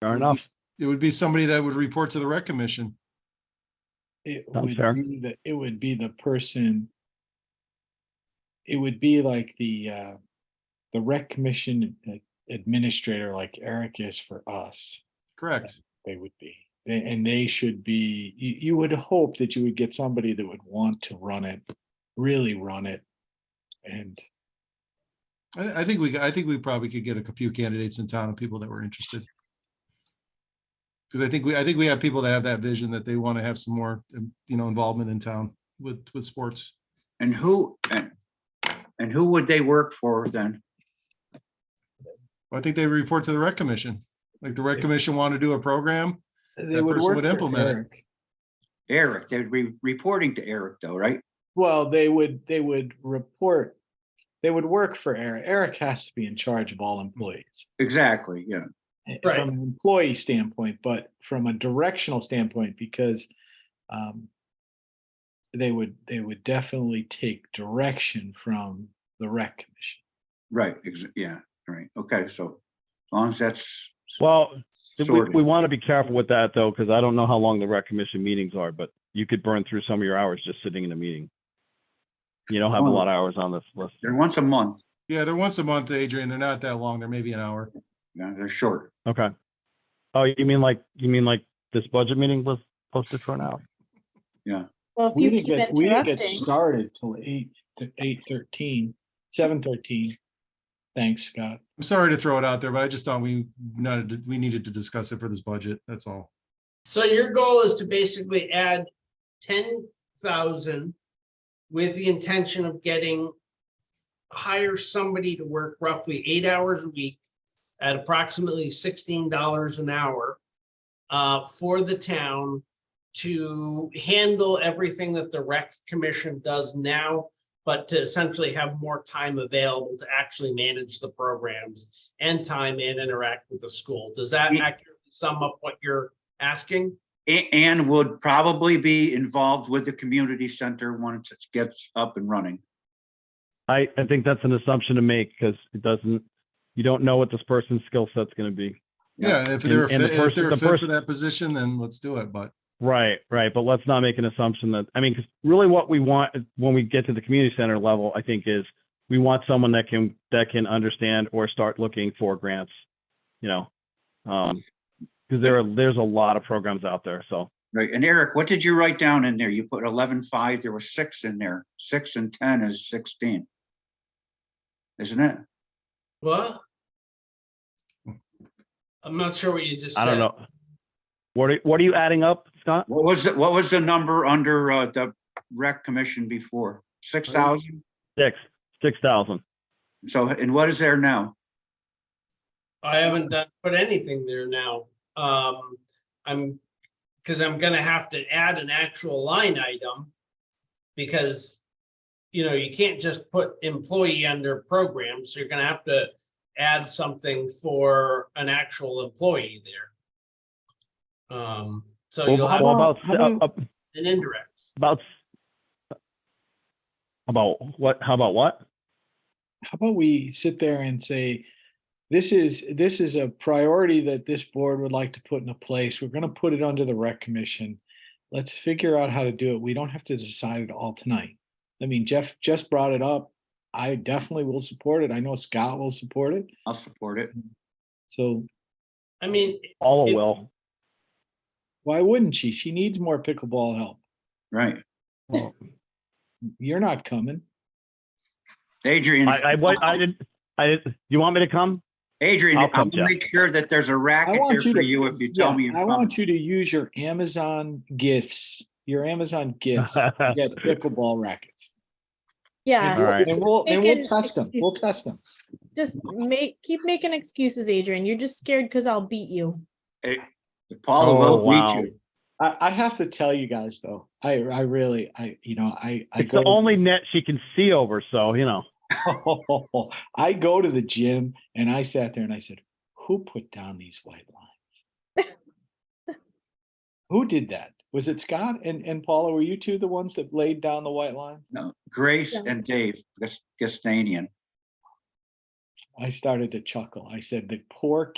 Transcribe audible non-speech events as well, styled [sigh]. Fair enough. It would be somebody that would report to the rec commission. It Sounds would fair. be the, it would be the person. It would be like the, uh, the rec commission ad- administrator like Eric is for us, Correct. they would be. They- And they should be, you, you would hope that you would get somebody that would want to run it, really run it. And I, I think we, I think we probably could get a few candidates in town of people that were interested. Because I think we, I think we have people that have that vision that they want to have some more, um, you know, involvement in town with, with sports. And who, and, and who would they work for then? I think they report to the rec commission. Like the rec commission want to do a program. they That would person work would for implement it. Eric. Eric, they'd be reporting to Eric though, right? Well, they would, they would report, they would work for Eric. Eric has to be in charge of all employees. Exactly, yeah. eh, Right. From an employee standpoint, but from a directional standpoint, because um, they would, they would definitely take direction from the rec commission. Right, ex- yeah, right, okay, so as long as that's Well, we, sorted. we want to be careful with that though, because I don't know how long the rec commission meetings are, but you could burn through some of your hours just sitting in a meeting. You don't have a lot of hours on this list. They're once a month, Yeah, they're once a month, Adrian. They're not that long. They're maybe an hour. Yeah, they're short. Okay. Oh, you mean like, you mean like this budget meeting was posted for an hour? Well, if We you didn't keep get, we didn't get interrupting, started till eight, eight thirteen, seven thirteen. Thanks, Scott. I'm sorry to throw it out there, but I just thought we, not, we needed to discuss it for this budget. That's all. So your goal is to basically add ten thousand with the intention of getting hire somebody to work roughly eight hours a week at approximately sixteen dollars an hour uh, for the town to handle everything that the rec commission does now, but to essentially have more time available to actually manage the programs and time and interact with the school. Does that Yeah. accurately sum up what you're asking? A- And would probably be involved with the community center once it gets up and running. I, I think that's an assumption to make because it doesn't, you don't know what this person's skill set's going to be. Yeah, and if they're, a And- and the fit- if person- they're the a fit for person- that position, then let's do it, but Right, right. But let's not make an assumption that, I mean, 'cause really what we want when we get to the community center level, I think is we want someone that can, that can understand or start looking for grants, you know? Um, cause there are, there's a lot of programs out there. So Right, and Eric, what did you write down in there? You put eleven five, there were six in there, six and ten is sixteen. Isn't it? What? I'm not sure what you just I said. don't know. What are, what are you adding up, Scott? What was, the- what was the number under uh, the rec commission before? Six thousand? Six, six thousand. So, and what is there now? I haven't done, put anything there now. Um, I'm, because I'm gonna have to add an actual line item. Because, you know, you can't just put employee under programs. You're gonna have to add something for an actual employee there. Um, so Well, you'll have well, about, How about- uh, an indirect. about, about what, how about what? How about we sit there and say, this is, this is a priority that this board would like to put into place. We're gonna put it under the rec commission. Let's figure out how to do it. We don't have to decide it all tonight. I mean, Jeff just brought it up. I definitely will support it. I know Scott will support it. I'll support it. So I mean, All It- will. why wouldn't she? She needs more pickleball help. Right. Well, You're not coming. Adrian. I, I, what, I didn't, I didn't, you want me to come? Adrian, I'll I'll come, Jeff. make sure that there's a I racket there want you for to- you if you tell yeah, me. you're I coming. want you to use your Amazon gifts, your Amazon [laughs] [laughs] gifts, to get pickleball rackets. And yeah. All we'll- right. just and we'll, and we'll making test them. We'll test them. Just make, keep making excuses, Adrian. You're just scared because I'll beat you. Eh, Paula Oh, will wow. beat you. I, I have to tell you guys though, I, I really, I, you know, I, I It's go, the to- only net she can see over, so, you know. [laughs] I go to the gym and I sat there and I said, who put down these white lines? Who did that? Was it Scott and, and Paula? Were you two the ones that laid down the white line? No, Grace Yeah. and Dave Gus- Gustanian. I started to chuckle. I said, the poor